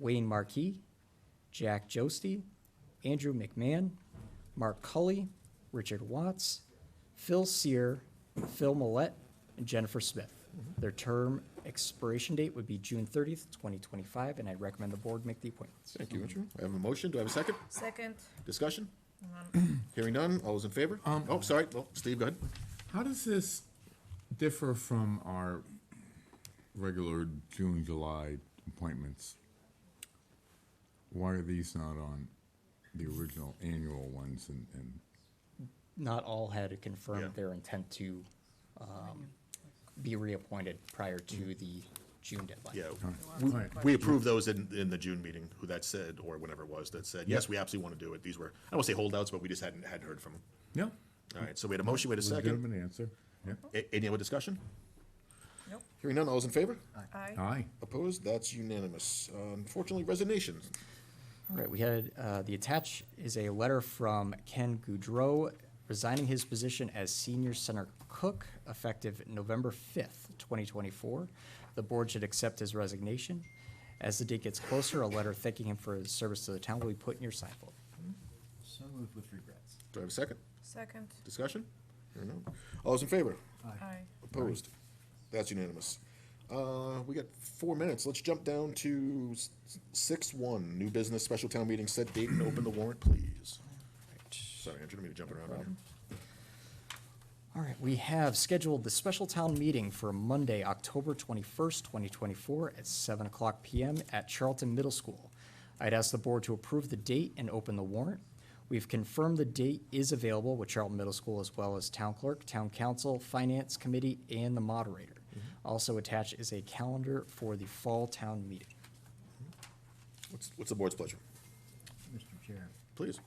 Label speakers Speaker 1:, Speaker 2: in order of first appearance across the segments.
Speaker 1: Wayne Markey, Jack Josty, Andrew McMahon, Mark Cully, Richard Watts, Phil Sear, Phil Millette, and Jennifer Smith.
Speaker 2: Mm-hmm.
Speaker 1: Their term expiration date would be June 30th, 2025, and I recommend the board make the appointments.
Speaker 2: Thank you, Andrew. I have a motion. Do I have a second?
Speaker 3: Second,
Speaker 2: Discussion? Hearing none. All those in favor? Oh, sorry. Well, Steve, go ahead.
Speaker 4: How does this differ from our regular June, July appointments? Why are these not on the original annual ones and, and,
Speaker 1: Not all had
Speaker 2: Yeah.
Speaker 1: confirmed their intent to um, be reappointed prior to the June deadline.
Speaker 2: Mm-hmm. Yeah.
Speaker 4: all right,
Speaker 2: We approved those in, in the June meeting, who that said, or whenever it was, that said, yes, we absolutely want to do it. These were, I don't want to say holdouts, but we just hadn't, hadn't heard from them.
Speaker 4: no,
Speaker 2: All right, so we had a motion, we had a second.
Speaker 4: legitimate answer, yeah,
Speaker 2: A- Any other discussion?
Speaker 3: nope,
Speaker 2: Hearing none. All those in favor?
Speaker 3: aye,
Speaker 4: aye,
Speaker 2: Opposed? That's unanimous. Uh, Unfortunately, resignations.
Speaker 1: All right, we had, uh, the attached is a letter from Ken Goudreau resigning his position as senior center cook effective November fifth, twenty twenty-four. The board should accept his resignation. As the date gets closer, a letter thanking him for his service to the town will be put in your sign folder.
Speaker 5: So moved with regrets.
Speaker 2: Do I have a second?
Speaker 3: second,
Speaker 2: Discussion? Hearing none. All those in favor?
Speaker 3: aye.
Speaker 2: Opposed? That's unanimous. Uh, we got four minutes. Let's jump down to six one, new business, special town meeting, set date and open the warrant, please. Sorry, Andrew, I didn't mean to jump around on you.
Speaker 1: All right, we have scheduled the special town meeting for Monday, October 21st, 2024, at 7 o'clock PM at Charlton Middle School. I'd ask the board to approve the date and open the warrant. We've confirmed the date is available with Charlton Middle School as well as town clerk, town council, finance committee, and the moderator. Also attached is a calendar for the fall town meeting.
Speaker 2: What's, what's the board's pleasure?
Speaker 5: Mr. Chair,
Speaker 2: Please.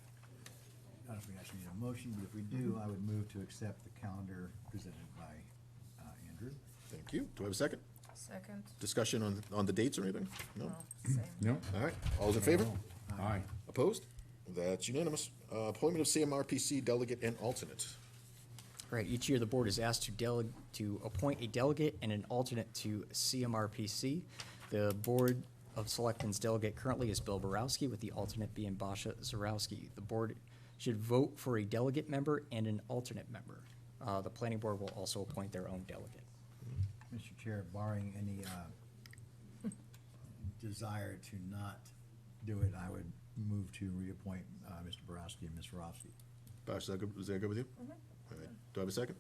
Speaker 5: I don't know if we actually need a motion, but if we do, I would move to accept the calendar presented by uh, Andrew.
Speaker 2: Thank you. Do I have a second?
Speaker 3: Second,
Speaker 2: Discussion on, on the dates or anything? No?
Speaker 3: no, same,
Speaker 4: no,
Speaker 2: All right. All's in favor?
Speaker 4: aye.
Speaker 2: Opposed? That's unanimous. Uh, appointment of CMRPC delegate and alternate.
Speaker 1: Right, each year the board is asked to deleg, to appoint a delegate and an alternate to CMRPC. The Board of Selectmen's delegate currently is Bill Borowski, with the alternate being Basha Zarowski. The board should vote for a delegate member and an alternate member. Uh, the planning board will also appoint their own delegate.
Speaker 5: Mr. Chair, barring any uh, desire to not do it, I would move to reappoint uh, Mr. Borowski and Ms. Rofsky.
Speaker 2: Bosh, is that good, is that good with you? All right. Do I have a second?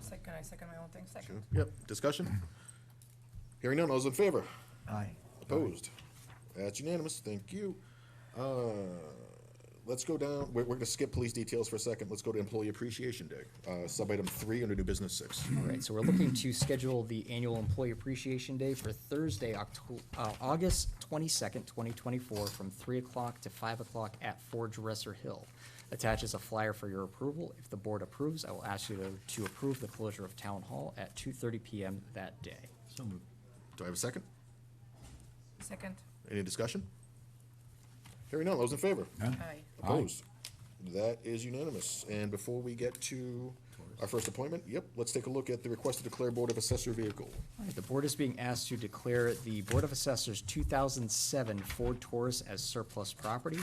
Speaker 3: second, I second my own thing, second,
Speaker 2: Yep. Discussion? Hearing none. All's in favor?
Speaker 5: Aye.
Speaker 2: Opposed? That's unanimous, thank you. Uh, Let's go down, we're, we're gonna skip police details for a second, let's go to Employee Appreciation Day, uh, sub-item three under new business six.
Speaker 1: All right, so we're looking to schedule the annual Employee Appreciation Day for Thursday, Octo- uh, August twenty-second, twenty twenty-four, from three o'clock to five o'clock at Ford Dresser Hill. Attaches a flyer for your approval. If the board approves, I will ask you to, to approve the closure of Town Hall at two thirty PM that day.
Speaker 5: So moved.
Speaker 2: Do I have a second?
Speaker 3: second,
Speaker 2: Any discussion? Hearing none, those in favor?
Speaker 3: aye,
Speaker 2: Opposed? That is unanimous, and before we get to our first appointment, yep, let's take a look at the request to declare Board of Assessor vehicle.
Speaker 1: All right, the board is being asked to declare the Board of Assessors 2007 Ford Taurus as surplus property.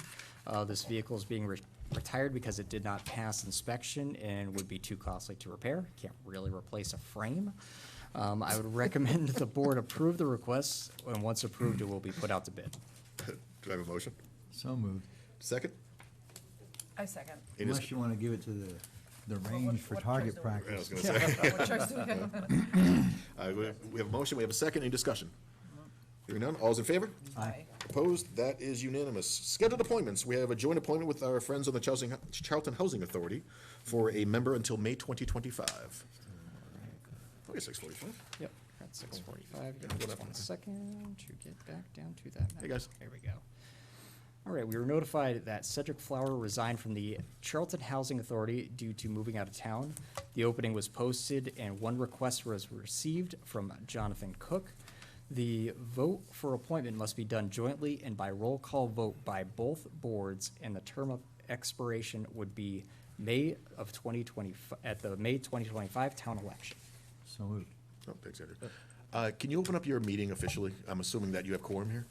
Speaker 1: Uh, This vehicle is being re- retired because it did not pass inspection and would be too costly to repair. Can't really replace a frame. Um, I would recommend the board approve the request, and once approved, it will be put out to bid.
Speaker 2: Do I have a motion?
Speaker 5: So moved.
Speaker 2: Second?
Speaker 3: I second.
Speaker 2: Any dis-
Speaker 5: Unless you want to give it to the, the
Speaker 3: what-
Speaker 5: range for
Speaker 3: what
Speaker 5: target
Speaker 3: choice do we-
Speaker 2: I was
Speaker 5: practice.
Speaker 2: gonna say.
Speaker 3: What choice do we have?
Speaker 2: Uh, we have- we have a motion, we have a second, any discussion? Hearing none, all's in favor?
Speaker 3: Aye,
Speaker 2: Opposed? That is unanimous. Scheduled appointments. We have a joint appointment with our friends on the Charleston, Charlton Housing Authority for a member until May twenty twenty-five. Forty-six, forty-five.
Speaker 1: Yep, at 6:45. Give me just one second to get back down to that.
Speaker 2: Hey,
Speaker 1: now.
Speaker 2: guys.
Speaker 1: There we go. All right, we were notified that Cedric Flower resigned from the Charlton Housing Authority due to moving out of town. The opening was posted and one request was received from Jonathan Cook. The vote for appointment must be done jointly and by roll call vote by both boards, and the term of expiration would be May of 2020, at the May 2025 town election.
Speaker 5: So moved.
Speaker 2: Oh, thanks, Andrew. Uh, can you open up your meeting officially? I'm assuming that you have quorum here?